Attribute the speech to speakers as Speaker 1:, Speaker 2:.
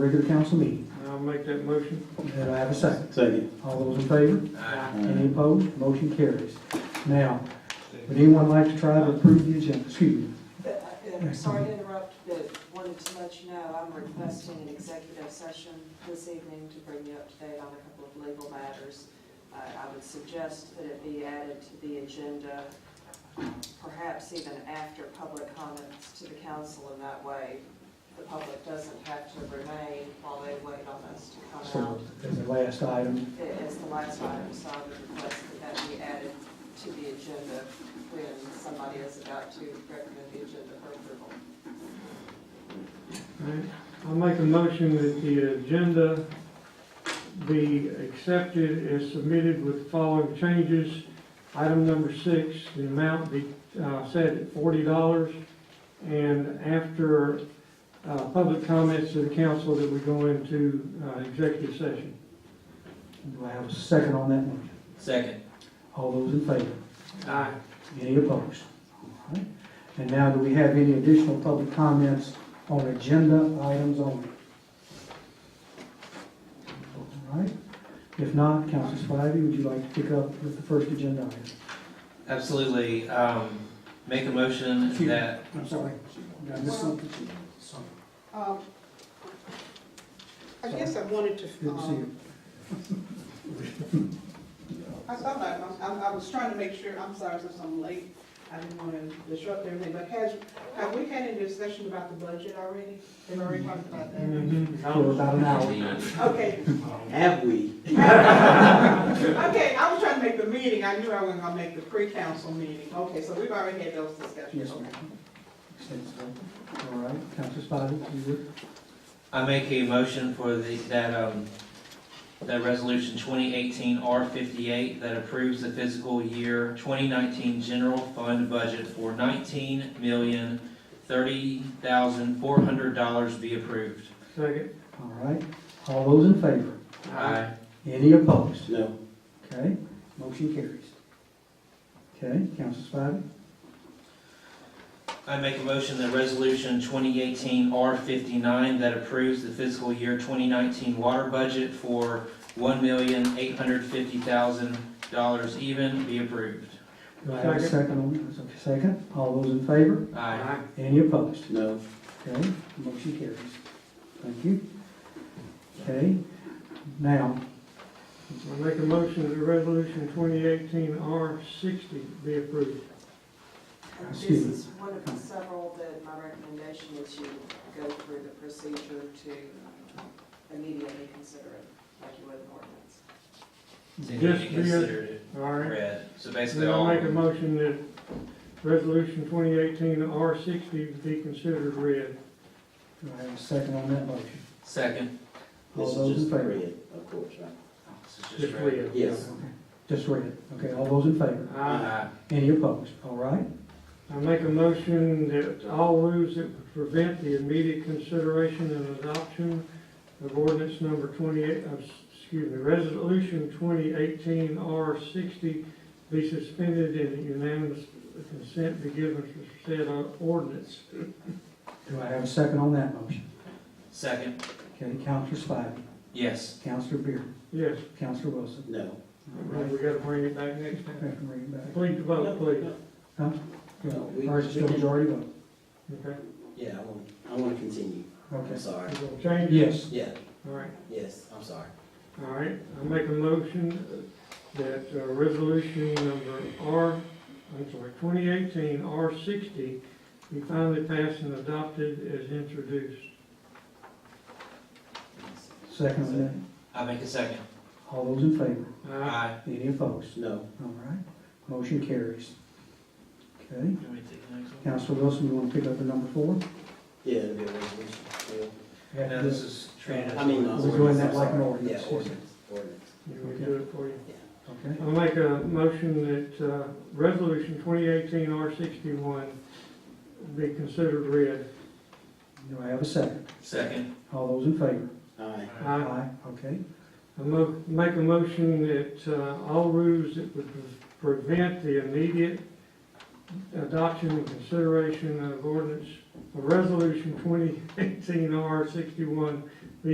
Speaker 1: regular council meeting.
Speaker 2: I'll make that motion.
Speaker 1: May I have a second?
Speaker 3: Second.
Speaker 1: All those in favor? Any opposed? Motion carries. Now, would anyone like to try to approve the agenda? Excuse me.
Speaker 4: But, uh, I'm sorry to interrupt, but wanted to let you know, I'm requesting an executive session this evening to bring you up to date on a couple of legal matters. Uh, I would suggest that it be added to the agenda, perhaps even after public comments to the council in that way. The public doesn't have to remain while they wait on us to come out.
Speaker 1: So, as the last item,
Speaker 4: It is the last item, so I would request that that be added to the agenda when somebody is about to recommend the agenda for approval.
Speaker 2: Alright, I'll make a motion that the agenda be accepted as submitted with the following changes. Item number six, the amount be uh, set at forty dollars. And after uh, public comments to the council, that we go into uh, executive session.
Speaker 1: do I have a second on that motion?
Speaker 3: Second.
Speaker 1: All those in favor?
Speaker 2: Aye.
Speaker 1: Any opposed? All right. And now, do we have any additional public comments on agenda items only? All right. If not, Council Spivey, would you like to pick up with the first agenda item?
Speaker 5: Absolutely. Um, Make a motion
Speaker 1: Phew.
Speaker 5: that,
Speaker 1: I'm sorry. Did I miss something? Sorry.
Speaker 6: Um, I guess I wanted to,
Speaker 1: Good to see
Speaker 6: um,
Speaker 1: you.
Speaker 6: I saw that, I, I- I was trying to make sure, I'm sorry since I'm late, I didn't want to disrupt everything, but has, have we had any discussion about the budget already? They've already talked about that?
Speaker 1: For about an hour.
Speaker 6: Okay,
Speaker 3: Have we?
Speaker 6: okay, I was trying to make the meeting, I knew I wasn't gonna make the pre-council meeting, okay, so we've already had those
Speaker 1: Yes,
Speaker 6: discussions, okay.
Speaker 1: ma'am. Extensive. All right, Council Spivey, you would?
Speaker 5: I make a motion for the, that, um, that resolution twenty eighteen R fifty-eight that approves the fiscal year twenty nineteen general fund budget for nineteen million thirty thousand four hundred dollars be approved.
Speaker 2: Second.
Speaker 1: All right. All those in favor?
Speaker 5: Aye.
Speaker 1: Any opposed?
Speaker 3: No.
Speaker 1: Okay, motion carries. Okay, Council Spivey?
Speaker 5: I make a motion that resolution twenty eighteen R fifty-nine that approves the fiscal year twenty nineteen water budget for one million eight hundred fifty thousand dollars even be approved.
Speaker 1: Do I have a second on that? Okay, Second, all those in favor?
Speaker 5: Aye.
Speaker 1: Any opposed?
Speaker 3: No.
Speaker 1: Okay, motion carries. Thank you. Okay, now,
Speaker 2: I make a motion that resolution twenty eighteen R sixty be approved.
Speaker 4: And this
Speaker 1: Excuse me.
Speaker 4: is one of the several that my recommendation is you go through the procedure to immediately consider it, like you would an ordinance.
Speaker 2: Yes, we are.
Speaker 5: Considered it
Speaker 2: All right.
Speaker 5: read. So
Speaker 2: Then
Speaker 5: basically
Speaker 2: I'll
Speaker 5: all.
Speaker 2: make a motion that resolution twenty eighteen R sixty be considered read.
Speaker 1: do I have a second on that motion?
Speaker 5: Second.
Speaker 1: All
Speaker 3: This is
Speaker 1: those in
Speaker 3: just
Speaker 1: favor?
Speaker 3: red, of course, right?
Speaker 5: This is
Speaker 2: Just
Speaker 5: read.
Speaker 2: read.
Speaker 3: Yes.
Speaker 1: Okay, Just read it. Okay, all those in favor?
Speaker 2: I,
Speaker 5: Aye.
Speaker 1: Any opposed? All right,
Speaker 2: I make a motion that all rules that would prevent the immediate consideration and adoption of ordinance number twenty-eight, uh, excuse me, resolution twenty eighteen R sixty be suspended and unanimous consent be given for said uh, ordinance.
Speaker 1: do I have a second on that motion?
Speaker 5: Second.
Speaker 1: Okay, Counselor Spivey,
Speaker 5: Yes.
Speaker 1: Counselor Beer,
Speaker 2: Yes,
Speaker 1: Counselor Wilson.
Speaker 3: No.
Speaker 1: All
Speaker 2: we
Speaker 1: right,
Speaker 2: gotta bring it back next
Speaker 1: I
Speaker 2: time.
Speaker 1: can read it back.
Speaker 2: Complete the vote, please.
Speaker 3: No, we-
Speaker 1: Or is it still majority vote?
Speaker 2: Okay,
Speaker 3: Yeah, I want, I want to continue. I'm
Speaker 1: Okay,
Speaker 3: sorry.
Speaker 2: we're gonna change it.
Speaker 1: yes,
Speaker 3: Yeah,
Speaker 2: All right,
Speaker 3: yes, I'm sorry.
Speaker 2: all right, I make a motion that uh, resolution number R, I'm sorry, twenty eighteen R sixty be finally passed and adopted as introduced.
Speaker 1: second on that.
Speaker 5: I make a second.
Speaker 1: All those in favor?
Speaker 2: Aye.
Speaker 5: Aye.
Speaker 1: Any opposed?
Speaker 3: No.
Speaker 1: All right, motion carries. Okay,
Speaker 5: You want me to take the next one?
Speaker 1: Counselor Wilson, you want to pick up the number four?
Speaker 3: Yeah, it'll be a resolution.
Speaker 5: No, this is
Speaker 3: Yeah.
Speaker 5: treated.
Speaker 3: I mean, uh,
Speaker 1: We're doing that
Speaker 3: ordinance, I'm
Speaker 1: like an
Speaker 3: sorry.
Speaker 1: ordinance.
Speaker 3: Yeah, ordinance, ordinance.
Speaker 2: You want me to do it for you?
Speaker 1: Okay,
Speaker 2: I'll make a motion that uh, resolution twenty eighteen R sixty-one be considered read.
Speaker 1: do I have a second?
Speaker 5: Second.
Speaker 1: All those in favor?
Speaker 3: Aye.
Speaker 2: Aye.
Speaker 1: Okay,
Speaker 2: I mo- make a motion that uh, all rules that would prevent the immediate adoption and consideration of ordinance, of resolution twenty eighteen R sixty-one